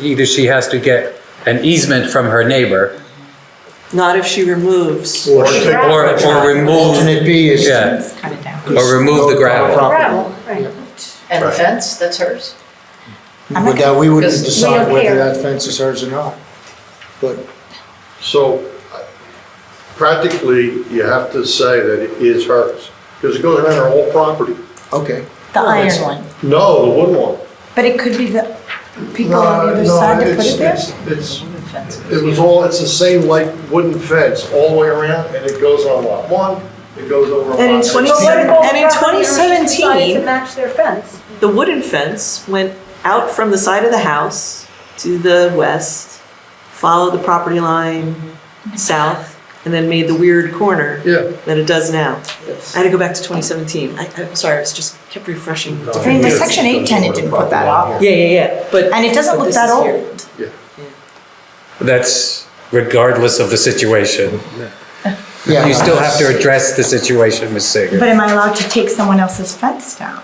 Either she has to get an easement from her neighbor Not if she removes. Or take- or, or remove, Alternate B is. yeah, Cut it down. or remove the gravel. Gravel, right. And the Right. fence, that's hers? But that, we wouldn't Because we decide don't whether care. that fence is hers or not. But So practically, you have to say that it is hers, because it goes around her whole property. Okay, The that's- iron one. No, the wood one. But it could be the people on either No, side to put it's- it there? it's- It's, it was all, it's the same light wooden fence all the way around, and it goes on lot one, it goes over on lot. And in six. 20 But what if all And in property owners decide 2017 To match their fence. The wooden fence went out from the side of the house to the west, followed the property line Mm-hmm. south, and then made the weird corner Yeah. that it does now. I had to go back to 2017. I, I'm sorry, I was just kept refreshing. I mean, the section eight tenant didn't put that up. Yeah, yeah, yeah, but. And it doesn't but look this that is here. old. That's regardless of the situation. yeah. You still have to address the situation, Ms. Sager. But am I allowed to take someone else's fence down?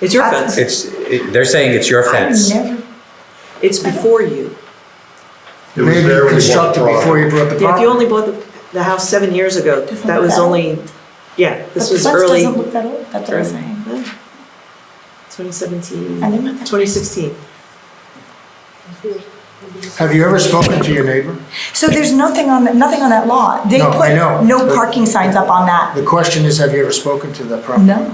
It's your That's- It's, fence. it- they're saying it's your I fence. never- It's before you. It was there Maybe when you walked constructed the property. before you brought the Yeah, if you property. only bought the, the house seven years ago, Doesn't that look was that old. only, yeah, But this the was fence early. doesn't look that old, that's what I'm saying. 2017, I didn't know that. 2016. Have you ever spoken to your neighbor? So there's nothing on, that- nothing on that lot. They No, I put know, no but- parking signs up on that. The question is, have you ever spoken to the property? No.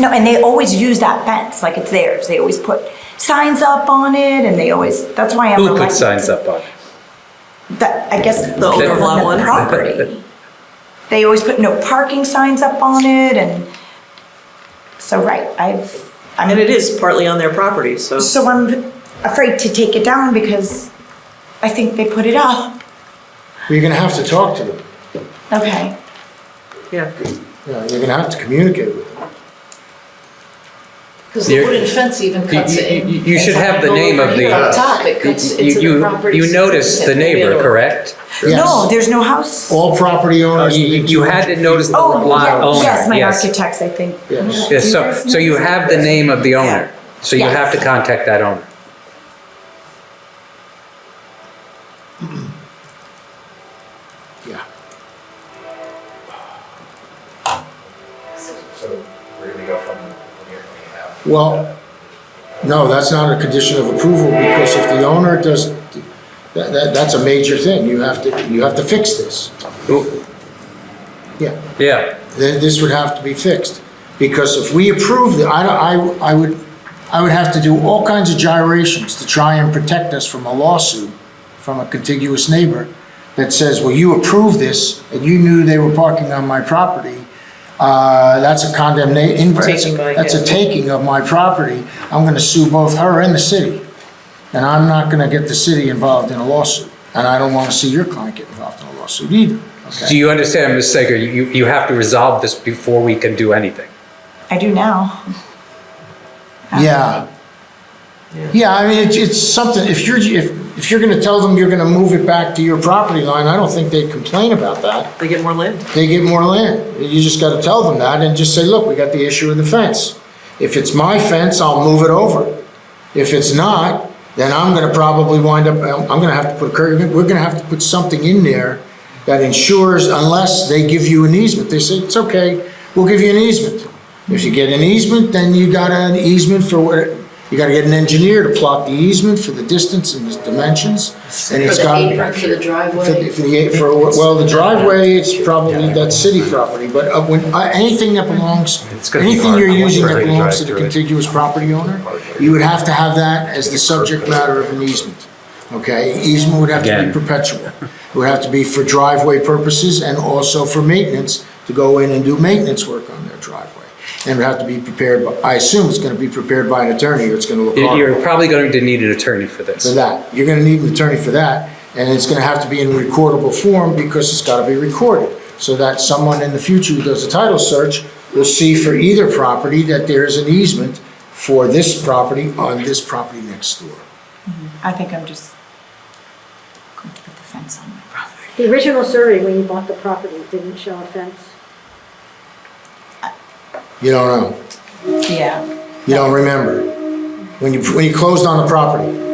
No, and they always use that fence, like it's theirs. They always put signs up on it and they always, that's why I'm. Who put elected. signs up on it? That, I guess. The owner of lot one? Property. They always put no parking signs up on it and, so, right, I've, I'm. And it is partly on their property, so. So I'm afraid to take it down because I think they put it up. You're gonna have to talk to them. Okay. Yeah. Yeah, you're gonna have to communicate with them. Because the You're- wooden fence even You- cuts it. you- you- You should have the name of the. Over here on top, it cuts You- into you- the property. You noticed the neighbor, correct? No, Yes. there's no house. All property owners. Uh, You need to- you had to notice the Oh, yeah, lot owner, yes, my yes. architects, I think. Yes. Yes, so, so you have the name of the owner, so you Yes. have to contact that owner. Yeah. So we're gonna go from from here to here Well, no, that's not a condition of approval, because if the owner does, that, that, that's a major thing. You have to, you have to fix this. Who- Yeah. Yeah, then this would have to be fixed. Because if we approve the, I, don't- I, I would, I would have to do all kinds of gyrations to try and protect us from a lawsuit from a contiguous neighbor that says, well, you approved this and you knew they were parking on my property. Uh, that's a condemnation, Taking by that's a him. taking of my property. I'm gonna sue both her and the city. And I'm not gonna get the city involved in a lawsuit. And I don't wanna see your client get involved in a lawsuit either, okay? do you understand, Ms. Sager, you, you have to resolve this before we can do anything. I do now. Yeah. Yeah, I mean, it's, it's something, if you're, if, if you're gonna tell them you're gonna move it back to your property line, I don't think they complain about that. They get more land. They get more land. You just gotta tell them that and just say, look, we got the issue of the fence. If it's my fence, I'll move it over. If it's not, then I'm gonna probably wind up, I'm I'm gonna have to put a curb, we're gonna have to put something in there that ensures, unless they give you an easement, they say, it's okay, we'll give you an easement. If you get an easement, then you got an easement for what, you gotta get an engineer to plot the easement for the distance and the dimensions, and For it's the got. apron, for the For driveway. the- for the, for, well, the driveway, it's probably, that's city property, but uh, when, uh, anything that belongs, It's gonna be anything hard you're for using that everybody to belongs drive to the through it. contiguous property owner, you would have to have that as the subject matter of an easement, okay? Easement would have to be Again. perpetual. It would have to be for driveway purposes and also for maintenance, to go in and do maintenance work on their driveway. And it would have to be prepared, by- I assume it's gonna be prepared by an attorney, or it's gonna look You- horrible You're probably going to need an attorney for for this. that. You're gonna need an attorney for that, and it's gonna have to be in recordable form because it's gotta be recorded. So that someone in the future who does a title search will see for either property that there is an easement for this property on this property next door. I think I'm just going to put the fence on my property. The original survey, when you bought the property, didn't show a fence. You don't know, Yeah. you don't remember, when you, when you closed on the property.